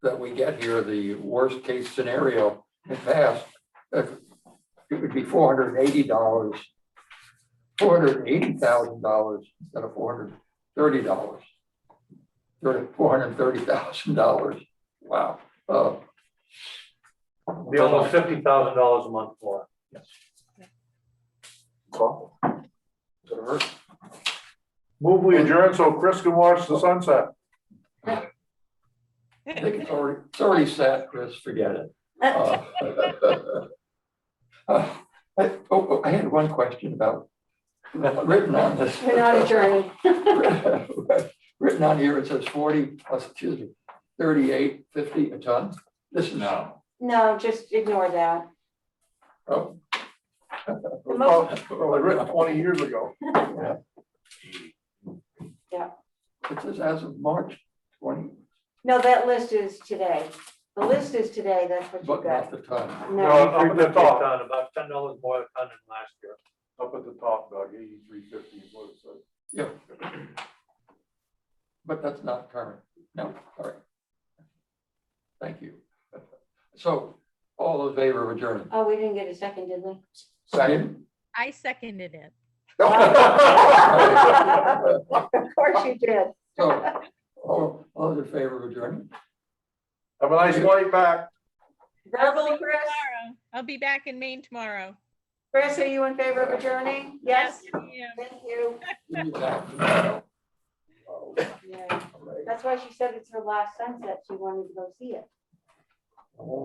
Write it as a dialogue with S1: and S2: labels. S1: that we get here, the worst case scenario at best, uh, it would be four hundred and eighty dollars, four hundred and eighty thousand dollars instead of four hundred and thirty dollars. Four hundred and thirty thousand dollars, wow. Uh,
S2: Be almost fifty thousand dollars a month more.
S1: well, does it hurt?
S3: Move we adjourn so Chris can watch the sunset.
S1: I think it's already, it's already set, Chris, forget it. Uh, uh, I oh, I had one question about, written on this.
S4: We're not adjourned.
S1: Written on here, it says forty plus, excuse me, thirty-eight, fifty a ton. This is. No.
S4: No, just ignore that.
S1: Oh.
S3: Oh, Probably written twenty years ago.
S1: It says as of March twenty,
S4: No, that list is today. The list is today, that's what you
S1: but
S4: got.
S1: not the ton.
S3: No,
S4: No,
S3: up
S2: Up
S3: at
S2: at
S3: the top,
S2: ton, about ten dollars more a ton than last year.
S3: up at the top, Doug, eighty-three fifty is what it says.
S1: But that's not current. No, all right. Thank you. So all in favor of adjournment?
S4: oh, we didn't get a second, did we?
S1: Second.
S5: I seconded it.
S1: So,
S4: Of course you did.
S1: all, all in favor of adjournment?
S3: Have a nice flight back.
S4: Verbal, Chris?
S5: Tomorrow. I'll be back in Maine tomorrow.
S4: Chris, are you in favor of adjourning? Yes?
S5: Yeah.
S4: Thank you.
S1: Yeah. Oh,
S4: Yeah,
S1: all right.
S4: that's why she said it's her last sunset. She wanted to go see it.
S1: Oh.